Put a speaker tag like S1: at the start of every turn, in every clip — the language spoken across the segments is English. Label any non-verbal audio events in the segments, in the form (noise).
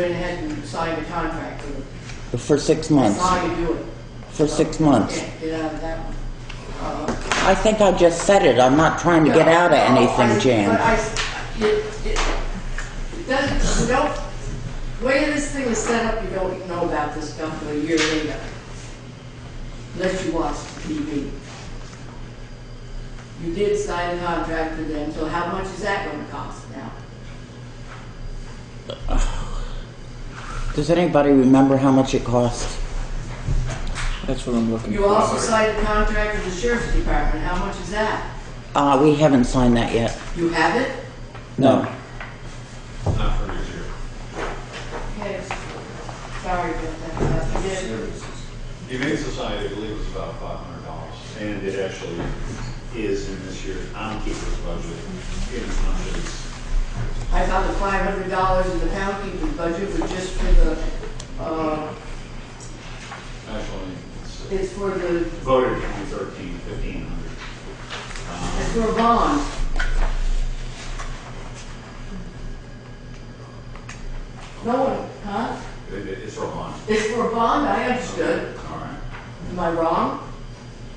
S1: went ahead and signed a contract with them.
S2: for six
S1: That's
S2: months.
S1: how you do it.
S2: For six months.
S1: Can't get out of that one. Uh,
S2: I think I just said it. I'm not trying to get out of
S1: Uh, I-
S2: anything,
S1: But
S2: Jan.
S1: I, it, it, it doesn't, you don't, the way this thing is set up, you don't know about this stuff for a year later. Unless you watch the TV. You did sign a contract with them, so how much is that gonna cost now?
S2: Does anybody remember how much it cost?
S3: That's what I'm looking
S1: You also signed a contract with the sheriff's department, how much is that?
S2: Uh, we haven't signed that yet.
S1: You have it?
S2: No.
S4: Not for this year.
S1: Okay, sorry about that, I did.
S4: Humane Society, I believe, is about five hundred dollars, and it actually is in this year's Keeper's budget, in as much as,
S1: I thought the five hundred dollars in the town keeper's budget was just for the, uh,
S4: actually, it's uh,
S1: it's for the,
S4: voted in 2013, 1,500. Um,
S1: it's for a bond. No one, huh?
S4: It- it- It's for a bond.
S1: It's for a bond, I understood.
S4: All right.
S1: Am I wrong?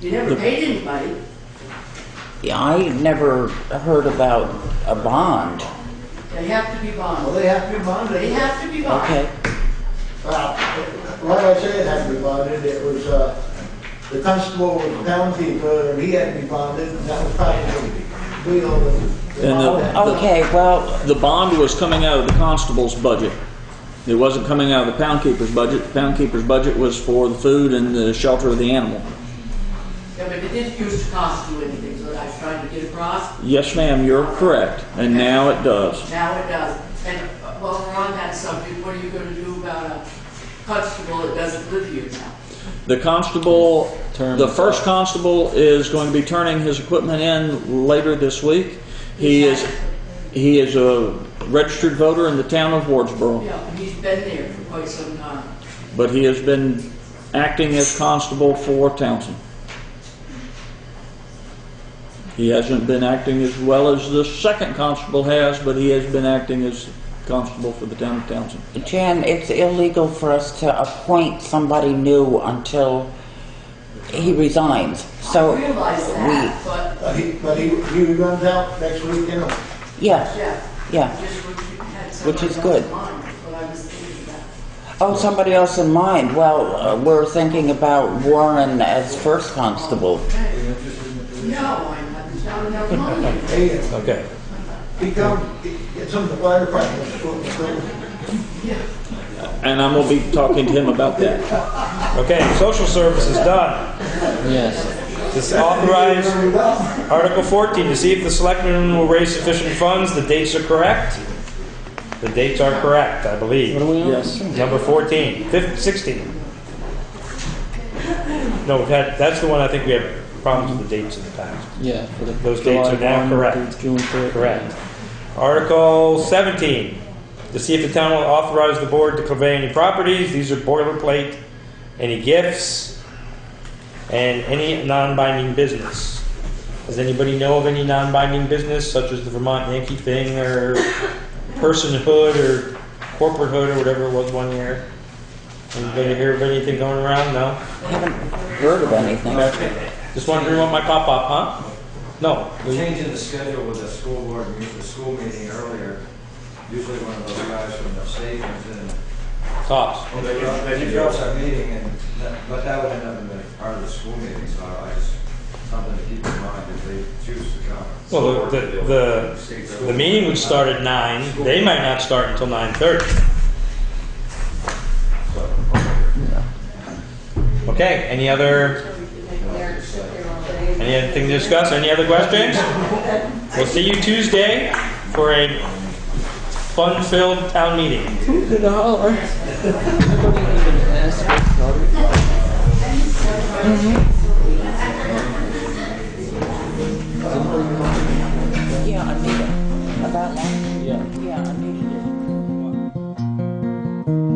S1: You never paid anybody.
S2: Yeah, I never heard about a bond.
S1: They have to be
S5: Well,
S1: bonded.
S5: they have to be bonded.
S1: They have to be bonded.
S2: Okay.
S5: Well, like I said, it had to be bonded, it was, uh, the constable, the town keeper, and he had to be bonded, and that was probably, we all, the
S3: And uh, the-
S5: bond.
S2: Oh, Okay, well,
S3: The bond was coming out of the constable's budget. It wasn't coming out of the pound keeper's budget. The pound keeper's budget was for the food and the shelter of the animal.
S1: Yeah, but it didn't used to cost you anything, so I was trying to get across.
S3: Yes, ma'am, you're correct. And now it does.
S1: Now it does. And uh, while we're on that subject, what are you gonna do about a constable that doesn't live here now?
S3: The constable,
S2: Term
S3: the
S2: is
S3: first constable is going to be turning his equipment in later this week. He is, he is a registered voter in the town of Wardsboro,
S1: Yeah, and he's been there for quite some time.
S3: but he has been acting as constable for Townsend. He hasn't been acting as well as the second constable has, but he has been acting as constable for the town of Townsend.
S2: Jan, it's illegal for us to appoint somebody new until he resigns.
S1: I
S2: So
S1: realize that, but,
S5: But he, but he, he runs out next week, you know.
S2: we, yeah,
S1: yeah,
S2: yeah.
S1: just what you had
S2: Which
S1: somebody
S2: is
S1: else
S2: good.
S1: in mind, is what I was thinking about.
S2: Oh, somebody else in mind. Well, uh, we're thinking about Warren as first constable.
S1: No, I'm not, there's not enough money.
S2: (laughs)
S5: Hey,
S3: Okay.
S5: he come, he get some of the fire department, so, so,
S1: Yeah.
S3: And I'm gonna be talking to him about that.
S6: Okay, social services, done. Yes. This authorize Article 14, to see if the selectmen will raise sufficient funds, the dates are correct. The dates are correct, I believe.
S3: Yes.
S6: Number 14, fif- 16. No, we've had, that's the one I think we have problems with the dates in the past.
S7: Yeah, for the
S6: Those dates are now correct.
S7: June 30.
S6: Correct. Article 17, to see if the town will authorize the board to convey any properties. These are boilerplate, any gifts, and any non-binding business. Does anybody know of any non-binding business, such as the Vermont Yankee thing, or personhood, or corporatehood, or whatever it was one year? Anybody hear of anything going around? No?
S2: Heard of anything?
S6: Just wondering what my pop-up, huh? No.
S8: Changing the schedule with the school board, me- the school meeting earlier, usually one of those guys from the state comes in.
S6: Tops.
S8: and They interrupt- they interrupts our meeting, and, that- but that would end up being part of the school meeting, so I just, something to keep in mind if they choose to come.
S6: Well, the, the, the The meeting would start at nine, they might not start until nine thirty. Okay, any other, any other thing to discuss, any other questions? We'll see you Tuesday for a fun-filled town meeting.
S2: Yeah, I need it. About one?
S3: Yeah.
S2: Yeah, I needed it.